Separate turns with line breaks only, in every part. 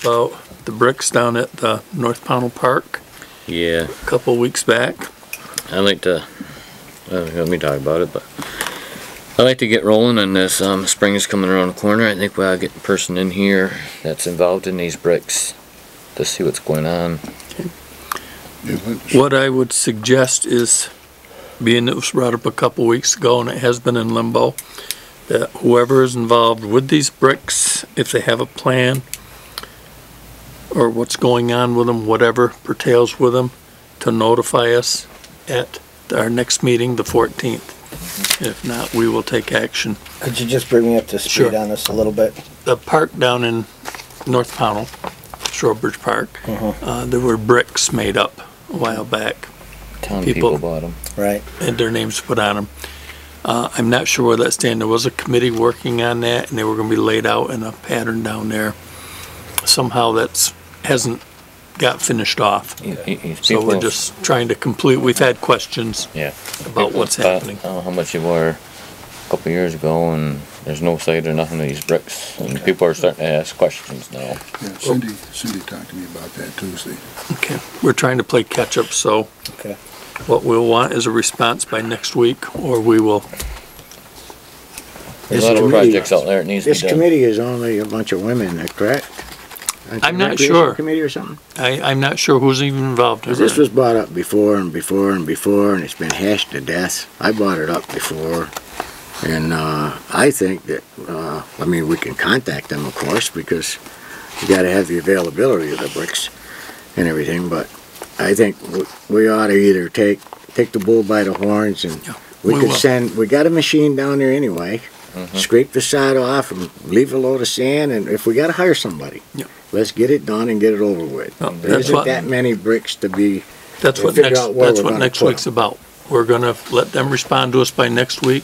about the bricks down at the North Pownell Park
Yeah,
a couple weeks back.
I'd like to, well, let me talk about it, but I'd like to get rolling on this. Um, spring is coming around the corner. I think we'll get a person in here that's involved in these bricks to see what's going on.
What I would suggest is, being it was brought up a couple weeks ago and it has been in limbo, that whoever is involved with these bricks, if they have a plan or what's going on with them, whatever pertains with them, to notify us at our next meeting, the 14th. If not, we will take action.
Could you just bring me up to speed
Sure.
on this a little bit?
the park down in North Pownell, Shorebridge Park, uh, there were bricks made up a while back,
Town
People-
people, bought 'em.
Right.
and their names put on them. Uh, I'm not sure where that stand, there was a committee working on that, and they were gonna be laid out in a pattern down there. Somehow that's, hasn't got finished off,
He- he- he's
so we're
people-
just trying to complete, we've had questions
yeah
about
people
what's
bought,
happening.
I don't know how much they were a couple years ago, and there's no site or nothing of these bricks, and people are starting to ask questions now.
Oh.
Yeah, Cindy, Cindy talked to me about that Tuesday.
Okay, we're trying to play catch-up, so
Okay.
what we'll want is a response by next week, or we will
There's
This
a lot of
committee-
projects out there that needs to be
This
done.
committee is only a bunch of women, uh, correct? Aren't
I'm
you
not
recreation
sure.
Committee or something?
I, I'm not sure who's even involved.
'Cause this was brought up before and before and before, and it's been hashed to death. I brought it up before, and, uh, I think that, uh, I mean, we can contact them, of course, because you gotta have the availability of the bricks and everything, but I think w- we ought to either take, take the bull by the horns and we
we will.
could
Mm-hmm.
send, we got a machine down there anyway, scrape the side off and leave a load of sand, and if we gotta hire somebody,
Yep.
let's get it done and get it over with.
No,
There
that's
isn't
what,
that many bricks to be,
that's what
figure
next,
out where
that's
we're
what
gonna
next
put
week's about. We're gonna let them respond to us by next week,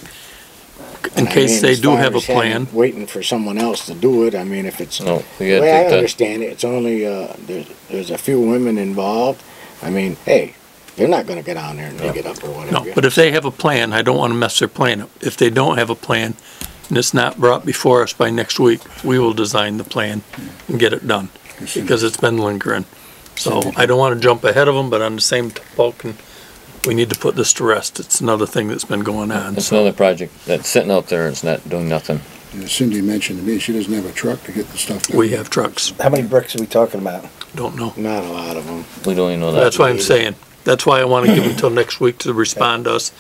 in
I
case
mean,
they
as
do
far
have a
as having-
plan.
Waiting for someone else to do it, I mean, if it's, the
No, we gotta
way I
take that.
understand it, it's only, uh, there's, there's a few women involved. I mean, hey, they're not gonna get on there and dig it up or
No,
whatever.
but if they have a plan, I don't wanna mess their plan up. If they don't have a plan, and it's not brought before us by next week, we will design the plan and get it done, because it's been lingering. So I don't wanna jump ahead of them, but on the same token, we need to put this to rest. It's another thing that's been going on,
It's
so.
another project that's sitting out there and it's not doing nothing.
Yeah, Cindy mentioned to me, she doesn't have a truck to get the stuff down.
We have trucks,
How many bricks are we talking about?
don't know.
Not a lot of them.
We don't even know that.
That's what I'm saying. That's why I want to give them till next week to respond to us.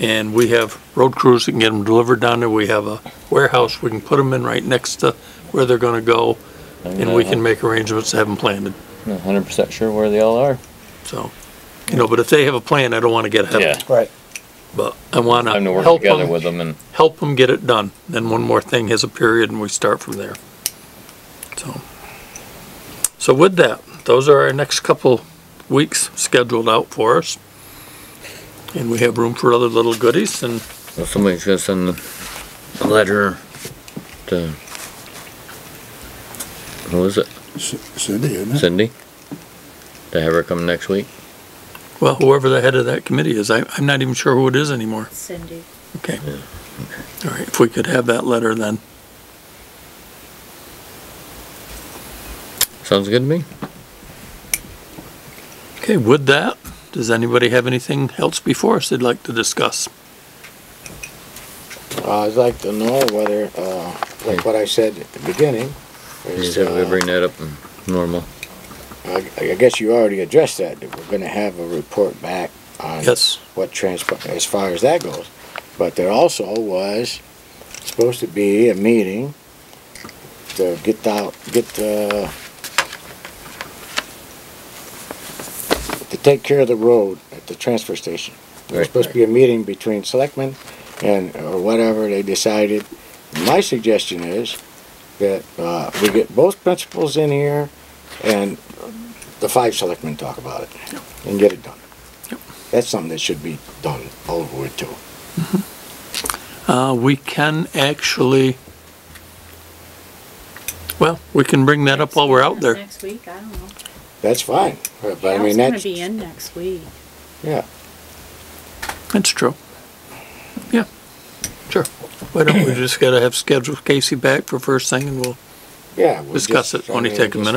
And we have road crews that can get them delivered down there. We have a warehouse. We can put them in right next to where they're gonna go. And we can make arrangements to have them planted.
Hundred percent sure where they all are.
So, you know, but if they have a plan, I don't want to get ahead of
Yeah.
them.
Right.
But I want
Time to
to
work
help
together with
them,
them and
help them get it done. Then one more thing has a period and we start from there. So. So with that, those are our next couple weeks scheduled out for us. And we have room for other little goodies and
well, somebody's gonna send a letter to who is it?
C- Cindy, isn't it?
Cindy? To have her come next week.
Well, whoever the head of that committee is, I, I'm not even sure who it is anymore.
Cindy.
Okay. All right, if we could have that letter then.
Sounds good to me.
Okay, with that, does anybody have anything else before us they'd like to discuss?
Uh, I'd like to know whether, uh, like what I said at the beginning,
You
is,
said we
uh,
bring that up normal.
I, I guess you already addressed that, that we're gonna have a report back on
Yes,
what transpired as far as that goes. But there also was supposed to be a meeting to get out, get the, to take care of the road at the transfer station. There was supposed to be a meeting between selectmen and, or whatever they decided. My suggestion is that, uh, we get both principals in here and the five selectmen talk about it and get it done. That's something that should be done over with too.
uh, we can actually, well, we can bring that up while we're out there.
Next week, I don't know.
That's fine, but I mean,
Al's gonna
that's,
be in next week.
yeah.
That's true. Yeah, sure. Why don't we just gotta have scheduled Casey back for first thing and we'll
Yeah. we'll
discuss
just-
it,
I
only
mean,
take a
just-
minute.